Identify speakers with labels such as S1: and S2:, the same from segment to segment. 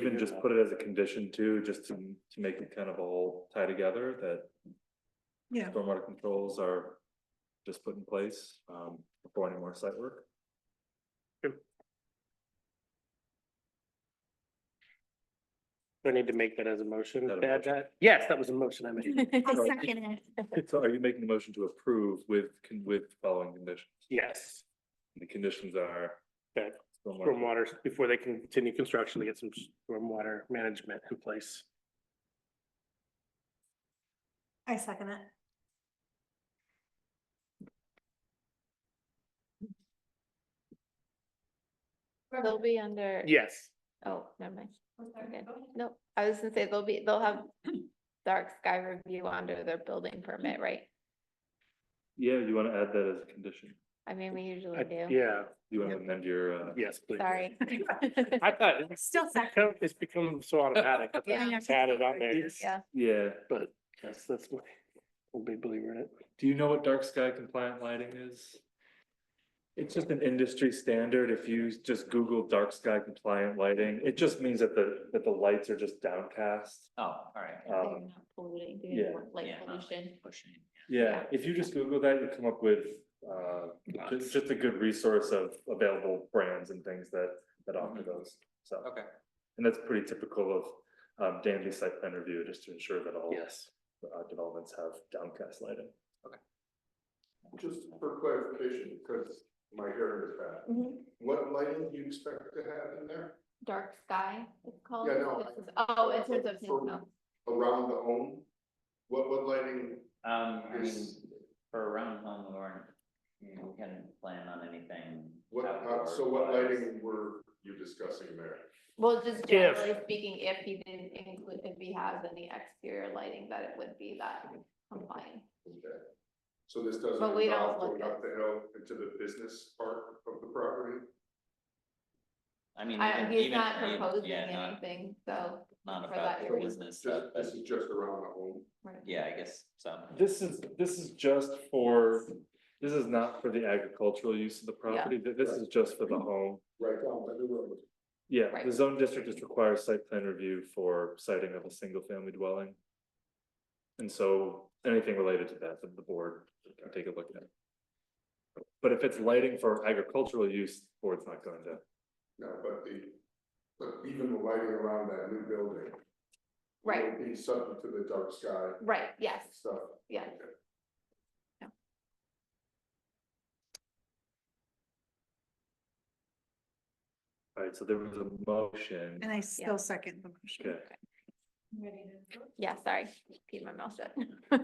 S1: could just put it as a condition too, just to, to make it kind of all tie together that
S2: Yeah.
S1: stormwater controls are just put in place, um, before any more site work.
S3: Do I need to make that as a motion?
S1: That a
S3: to add that? Yes, that was a motion I made.
S4: I
S1: Sorry.
S4: second it.
S1: So are you making a motion to approve with, con- with following conditions?
S3: Yes,
S1: The conditions are.
S3: That
S1: stormwater-
S3: stormwater, before they can continue construction, to get some stormwater management in place.
S4: I second it.
S5: They'll be under.
S3: Yes,
S5: Oh, never mind. We're good. Nope, I was gonna say they'll be, they'll have dark sky review under their building permit, right?
S1: Yeah, you wanna add that as a condition?
S5: I mean, we
S3: I-
S5: usually do.
S3: yeah,
S1: You wanna amend your, uh?
S3: yes, please.
S5: Sorry.
S3: I thought it's
S4: Still second.
S3: become, it's become so automatic. I thought
S5: Yeah.
S3: it's Added on there,
S5: Yeah,
S1: Yeah,
S3: but yes, that's my, I'll be believing it.
S1: do you know what dark sky compliant lighting is? It's just an industry standard. If you just Google dark sky compliant lighting, it just means that the, that the lights are just downcast.
S6: Oh, all right.
S5: they're not
S1: Um,
S5: polluting, they
S1: yeah.
S5: don't want light
S6: Yeah, not like
S5: pollution.
S6: Pushing.
S1: Yeah, if you just Google that, you come up with, uh, ju-
S3: Lots.
S1: just a good resource of available brands and things that, that offer those, so.
S6: Mm-hmm. Okay.
S1: And that's pretty typical of, um, Danby site plan review, just to ensure that all
S3: Yes.
S1: uh, developments have downcast lighting.
S7: Just for clarification, because my hearing is bad, what lighting do you expect to have in there
S5: Dark sky, it's called.
S7: Yeah, no,
S5: This is- Oh, in terms of,
S7: For-
S5: no,
S7: around the home? What, what lighting
S6: Um, I mean,
S7: is,
S6: for around home, we weren't, you know, we hadn't planned on anything.
S7: what, uh,
S6: outdoor
S7: so what
S6: wise.
S7: lighting were you discussing there?
S5: well, just
S3: If-
S5: generally speaking, if he didn't include, if he has any exterior lighting, that it would be that compliant.
S7: Okay. So this doesn't
S5: But we don't
S7: involve
S5: look
S7: going
S5: at-
S7: up the hill into the business part of the property?
S6: I mean.
S5: I,
S6: even-
S5: he's
S6: even-
S5: not
S6: even-
S5: proposing
S6: yeah, not-
S5: anything, so,
S6: Not
S5: for that
S6: about the
S5: area.
S6: business stuff,
S7: Just,
S6: but
S7: this is just around the home?
S5: right.
S6: yeah, I guess so.
S1: This is, this is just for, this is not for the agricultural use of the property, th- this is just for the home.
S7: Right down by the road.
S1: Yeah, the
S5: Right.
S1: zone district just requires site plan review for siting of a single family dwelling. And so anything related to that, that the board can take a look at. But if it's lighting for agricultural use, board's not going to,
S7: No, but the, but even the lighting around that new building.
S5: Right,
S7: would Be subject to the dark sky
S5: right, yes,
S7: stuff.
S5: yeah.
S7: Okay.
S1: alright, so there was a motion.
S2: And I still second the motion.
S1: Okay,
S5: Yeah, sorry, keep my mouth shut.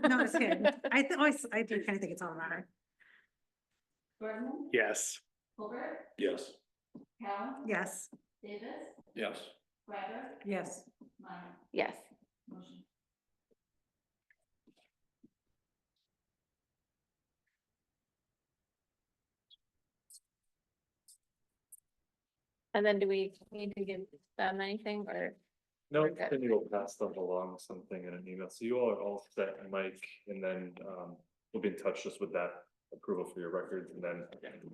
S2: No, it's good. I th- always, I do kind of think it's all matter.
S5: Gordon,
S3: Yes.
S5: Colbert,
S7: Yes.
S5: Cal,
S2: Yes,
S5: Davis,
S7: Yes.
S5: Ryder,
S2: yes.
S5: Meyer. Yes. Motion. And then do we need to give them anything or?
S1: no,
S5: Okay.
S1: then you'll pass them along something in an email, so you all are all set, Mike, and then, um, we'll be in touch just with that approval for your records, and then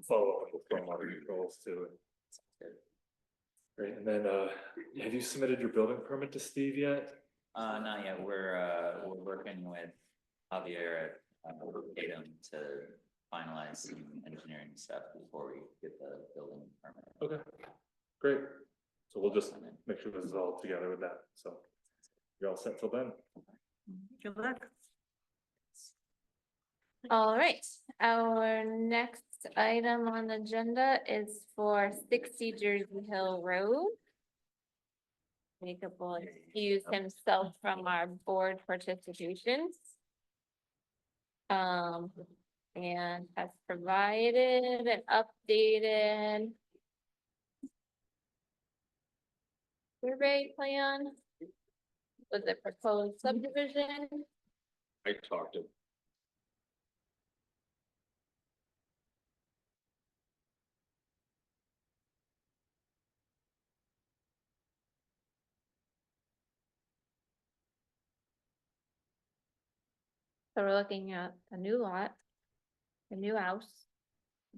S1: follow up with stormwater controls too. Great, and then, uh, have you submitted your building permit to Steve yet?
S6: Uh, not yet, we're, uh, we're working with Javier at uh, Tatum to finalize some engineering stuff before we get the building permit.
S1: Okay, great. So we'll just
S6: And then-
S1: make sure this is all together with that, so you're all set till then.
S2: Good luck.
S5: All right, our next item on the agenda is for sixty Jersey Hill Road. Jacob will excuse himself from our board participation. Um, and has provided an updated survey plan with the proposed subdivision.
S7: I talked to
S5: So we're looking at a new lot, a new house,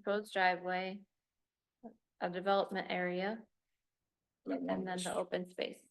S5: proposed driveway, a development area, and then the open space.